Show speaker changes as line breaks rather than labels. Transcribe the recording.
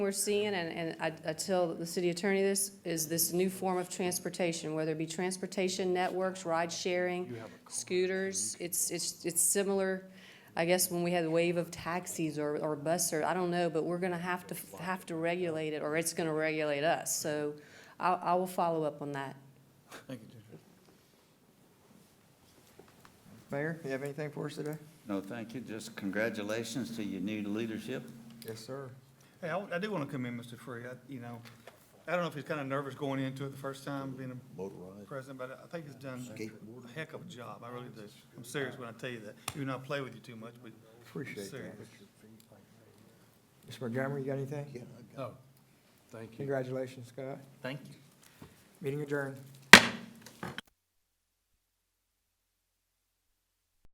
we're seeing, and, and I, I tell the city attorney this, is this new form of transportation, whether it be transportation networks, ride sharing, scooters, it's, it's, it's similar, I guess, when we had the wave of taxis or, or bus or, I don't know, but we're gonna have to, have to regulate it, or it's gonna regulate us, so I, I will follow up on that.
Thank you, Judge.
Mayor, you have anything for us today?
No, thank you. Just congratulations to your new leadership.
Yes, sir.
Hey, I, I do want to commend Mr. Free. I, you know, I don't know if he's kind of nervous going into it the first time being a president, but I think he's done a heck of a job. I really do. I'm serious when I tell you that. Even though I play with you too much, but. I'm
Appreciate that.
serious.
Mr. Montgomery, you got anything?
Yeah, I got it.
Oh, Thank you.
Congratulations, Scott.
Thank you.
Meeting adjourned.